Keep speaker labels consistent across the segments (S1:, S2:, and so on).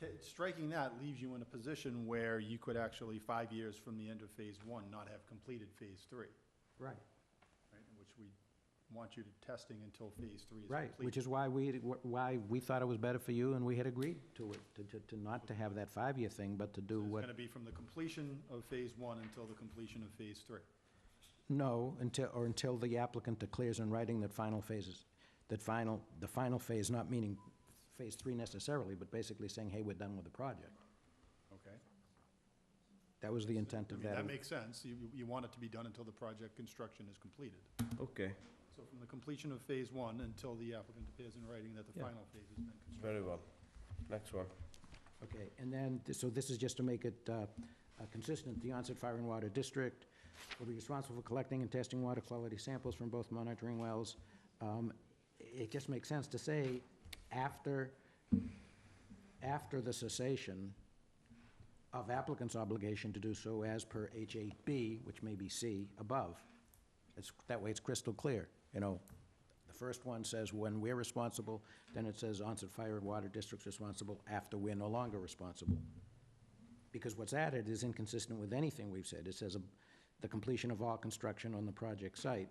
S1: Ca- Striking that leaves you in a position where you could actually, five years from the end of phase one, not have completed phase three,
S2: Right,
S1: right? in Which we want you to testing until phase three is
S2: right,
S1: complete.
S2: which is why we, why we thought it was better for you, and we had agreed to it, to- to, to not to have that five-year thing, but to do
S1: So It's
S2: what,
S1: gonna be from the completion of phase one until the completion of phase three.
S2: no, until, or until the applicant declares in writing that final phases, that final, the final phase, not meaning phase three necessarily, but basically saying, hey, we're done with the project.
S1: Okay.
S2: That was the intent
S1: I
S2: of
S1: mean, that
S2: that.
S1: makes sense. You, you- you want it to be done until the project construction is completed.
S3: Okay,
S1: So from the completion of phase one until the applicant appears in writing that the
S2: Yeah.
S1: final phase has been constructed.
S3: very well. Next one.
S2: Okay, and then, th- so this is just to make it uh, uh, consistent, the onset Fire and Water District will be responsible for collecting and testing water quality samples from both monitoring wells. Um, It just makes sense to say, after, after the cessation of applicant's obligation to do so as per H8B, which may be C, above. It's, that way it's crystal clear, you know. The first one says when we're responsible, then it says onset fire and water district's responsible after we're no longer responsible. Because what's added is inconsistent with anything we've said. It says um, the completion of all construction on the project site.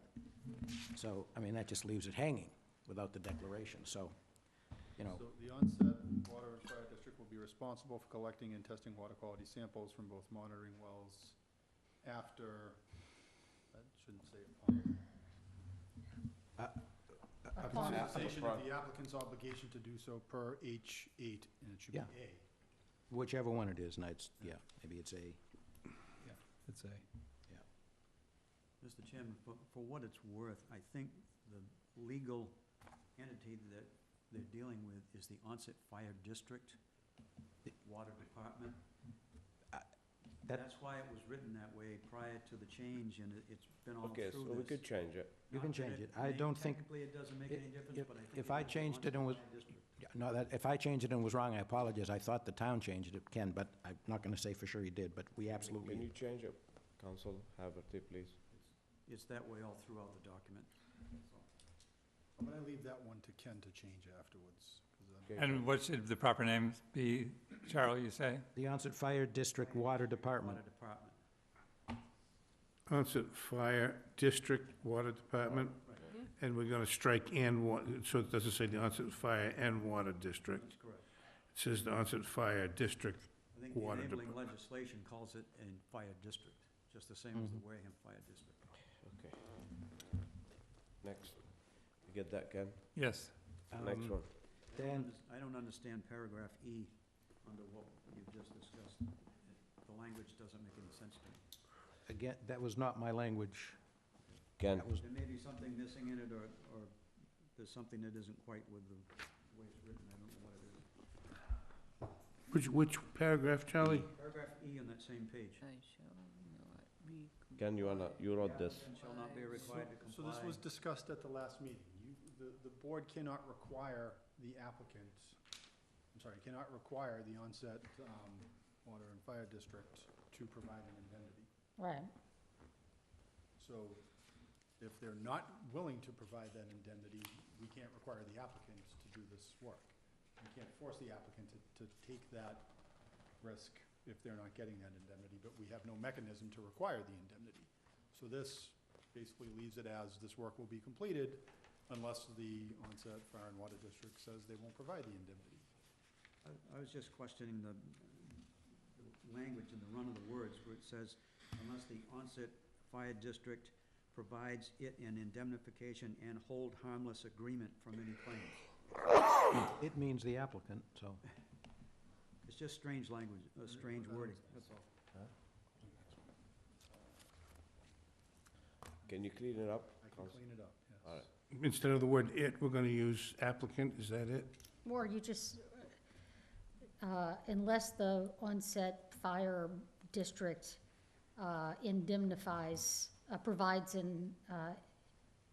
S2: So, I mean, that just leaves it hanging without the declaration, so, you know,
S1: So the onset water and fire district will be responsible for collecting and testing water quality samples from both monitoring wells after, I shouldn't say upon.
S4: Upon.
S1: After cessation of the applicant's obligation to do so per H eight, and it should be
S2: Yeah.
S1: A.
S2: whichever one it is, and it's, yeah, maybe it's a,
S5: It's a,
S4: Mr. Chairman, for, for what it's worth, I think the legal entity that they're dealing with is the Onset Fire District Water Department.
S2: that-
S4: That's why it was written that way prior to the change, and it- it's been all through
S3: Okay,
S4: this.
S3: so we could change it.
S2: You can
S4: Not that
S2: change it. I
S4: may-
S2: don't think-
S4: Technically, it doesn't make
S2: i-
S4: any difference,
S2: if-
S4: but I think.
S2: if
S4: it
S2: I
S4: is the
S2: changed it
S4: Onset
S2: and was-
S4: Fire District.
S2: Yeah, No, that, if I changed it and was wrong, I apologize. I thought the town changed it, Ken, but I'm not gonna say for sure he did, but we
S3: Can
S2: absolutely,
S3: you change it, Council Haverty, please?
S4: It's that way all throughout the document.
S1: I'm gonna leave that one to Ken to change afterwards, 'cause uh, I'm-
S3: Okay.
S5: and what should the proper name be, Charlie, you say?
S2: the Onset Fire District Water Department.
S4: Water Department.
S6: Onset Fire District Water Department, and we're gonna strike and wa, so it doesn't say the Onset Fire and Water District.
S4: That's correct.
S6: It says the Onset Fire District.
S4: I think the
S6: Water
S4: enabling legislation calls it a fire district, just the same as the Wareham Fire District.
S3: Okay. Next. You get that, Ken?
S5: Yes,
S3: Next
S2: Um,
S3: one.
S4: I don't
S2: Dan-
S4: unders- I don't understand paragraph E under what you've just discussed. The language doesn't make any sense to me.
S2: Again, that was not my language.
S3: Ken,
S2: That was,
S4: There may be something missing in it, or, or there's something that isn't quite with the way it's written, I don't know what it is.
S6: Which, which paragraph, Charlie?
S4: Paragraph E on that same page.
S7: I shall not be.
S3: Ken, you wanna, you wrote this.
S4: And shall not be required to
S1: So this
S4: comply.
S1: was discussed at the last meeting. You, the, the board cannot require the applicant, I'm sorry, cannot require the onset, um, water and fire district to provide an indemnity.
S7: Right.
S1: So if they're not willing to provide that indemnity, we can't require the applicant to do this work. We can't force the applicant to, to take that risk if they're not getting that indemnity, but we have no mechanism to require the indemnity. So this basically leaves it as this work will be completed unless the onset fire and water district says they won't provide the indemnity.
S4: I- I was just questioning the the language and the run of the words where it says, unless the onset fire district provides it an indemnification and hold harmless agreement from any claims.
S2: it means the applicant, so.
S4: It's just strange language, uh, strange wording, that's all.
S3: Can you clean it up?
S1: I can
S3: Council?
S1: clean it up, yes.
S3: All right.
S6: Instead of the word it, we're gonna use applicant, is that it?
S8: Or you just, uh, unless the onset fire district uh, indemnifies, uh, provides in, uh,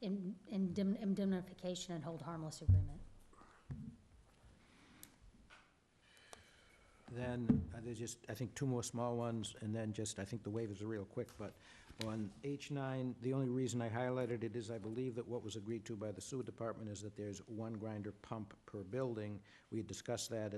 S8: in- indemn- indemnification and hold harmless agreement.
S2: Then, uh, there's just, I think, two more small ones, and then just, I think the waivers are real quick, but on H nine, the only reason I highlighted it is I believe that what was agreed to by the sewer department is that there's one grinder pump per building. We had discussed that